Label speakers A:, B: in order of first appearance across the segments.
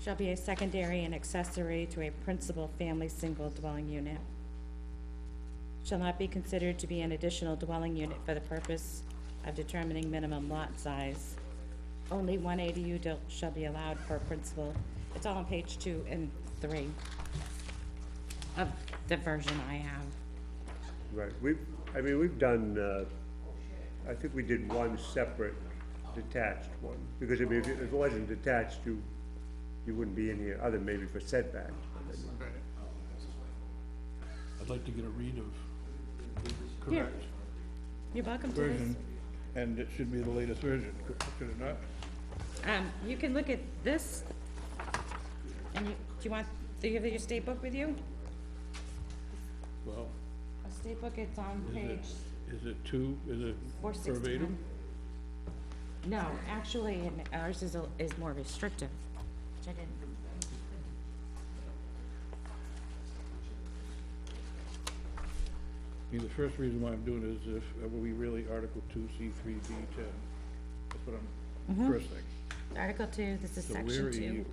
A: shall be a secondary and accessory to a principal family single dwelling unit. Shall not be considered to be an additional dwelling unit for the purpose of determining minimum lot size. Only one ADU del- shall be allowed per principal. It's all on page two and three of the version I have.
B: Right, we've, I mean, we've done, uh, I think we did one separate detached one, because I mean, if it if it wasn't detached, you, you wouldn't be in here, other maybe for setback.
C: I'd like to get a read of
A: Here.
C: correct
A: You're welcome to this.
C: version, and it should be the latest version, cor- should it not?
A: Um, you can look at this, and you, do you want, do you have your state book with you?
C: Well,
A: A state book, it's on
C: is
A: page
C: it, is it two, is it
A: four sixty-one.
C: verbatim?
A: No, actually, and ours is, a- is more restrictive, which I didn't,
C: I mean, the first reason why I'm doing it is if, are we really Article two, C three, D ten? That's what I'm, first thing.
A: Article two, this is
C: So where
A: Mm-hmm. section
C: are
A: two.
C: you?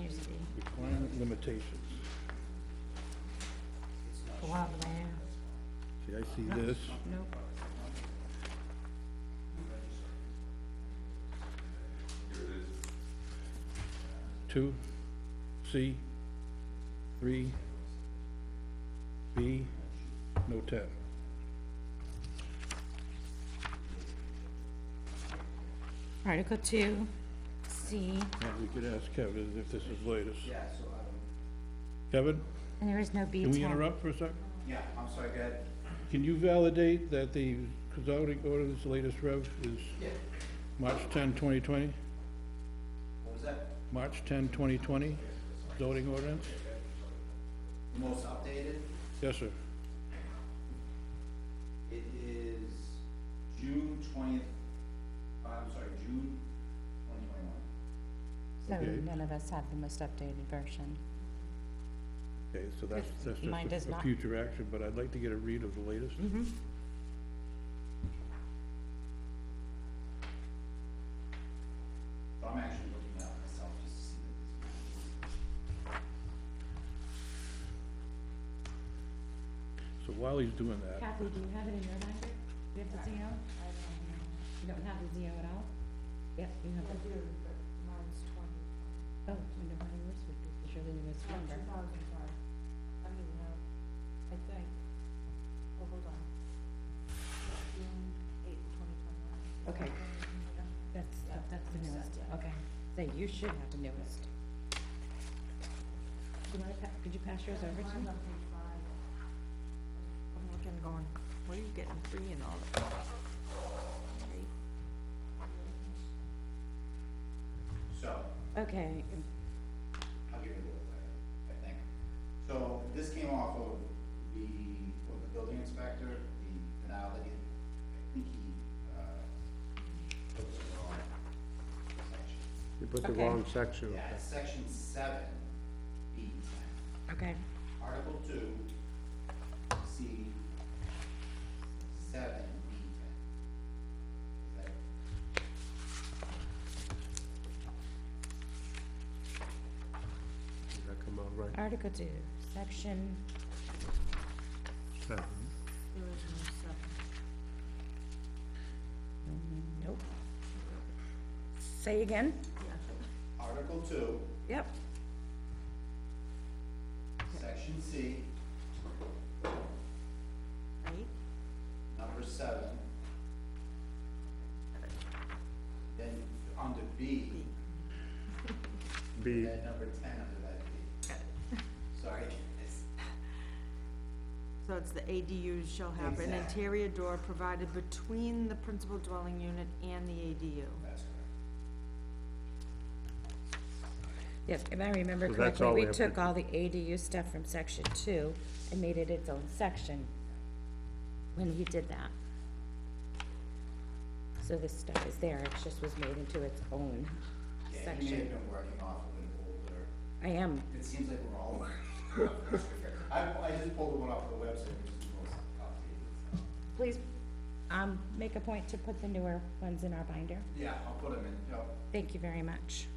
A: Here's the
C: Requirement limitations.
A: blah blah,
C: See, I
A: Oh.
C: see this,
A: nope,
C: two, C, three, B, no ten.
A: Article two, C,
C: Now, we could ask Kevin if this is latest. Kevin,
A: and there is no B
C: can
A: ten.
C: we interrupt for a sec?
D: Yeah, I'm sorry, go ahead.
C: Can you validate that the zoning ordinance latest rev is March 10, 2020?
D: What was that?
C: March 10, 2020 zoning ordinance?
D: The most updated,
C: Yes, sir.
D: it is June twentieth, uh, I'm sorry, June twenty twenty-one.
A: So
C: Okay.
A: none of us have the most updated version.
C: Okay, so that's, that's
A: Mine does
C: just a- a
A: not. Mm-hmm.
C: future action, but I'd like to get a read of the latest.
D: So I'm actually looking at it myself just to see that.
C: So while he's doing that,
A: Kathy, do you have it in your binder? Do you have the ZO? You don't have the ZO at all? Yes, you have it. I do, but mine's twenty. Oh, I know mine yours would be, for sure, then you must remember.
E: I don't even know, I think, oh, hold on. June eighth, twenty twenty-one.
A: Okay, that's, that's the newest, okay. So you should have the newest. Do you wanna pa- could you pass yours over to me?
E: Mine's on page five. I'm looking going, what are you getting free and all that? Free?
D: So,
A: Okay,
D: I'll give you a little, bit, I think. So this came off of the, what, the building inspector, the denial that he, I think he, uh, put the wrong section.
B: You put the
A: Okay.
B: wrong section.
D: Yeah, it's section seven, B ten.
A: okay,
D: Article two, C seven, B ten. Is that-
B: Did that come out right?
A: Article two, section,
B: Seven.
E: There is no seven.
A: nope. Say again?
D: Article two,
A: Yep.
D: section C,
E: Right?
D: number seven. Then under B,
B: B,
D: then number ten under that B. Sorry, it's
E: So it's the ADUs shall have an
D: Exactly.
E: interior door provided between the principal dwelling unit and the ADU.
D: that's correct.
A: Yep, if I remember
B: So that's
A: correctly,
B: all we
A: we
B: have
A: took
B: to-
A: all the ADU stuff from section two and made it its own section when we did that. So this stuff is there, it just was made into its own
D: Yeah, you may have
A: section.
D: been working off of an older,
A: I am,
D: it seems like we're all working. I, I just pulled one off the website, which is the most updated, so.
A: please, um, make a point to put the newer ones in our binder.
D: Yeah, I'll put them in, no,
A: Thank you very much.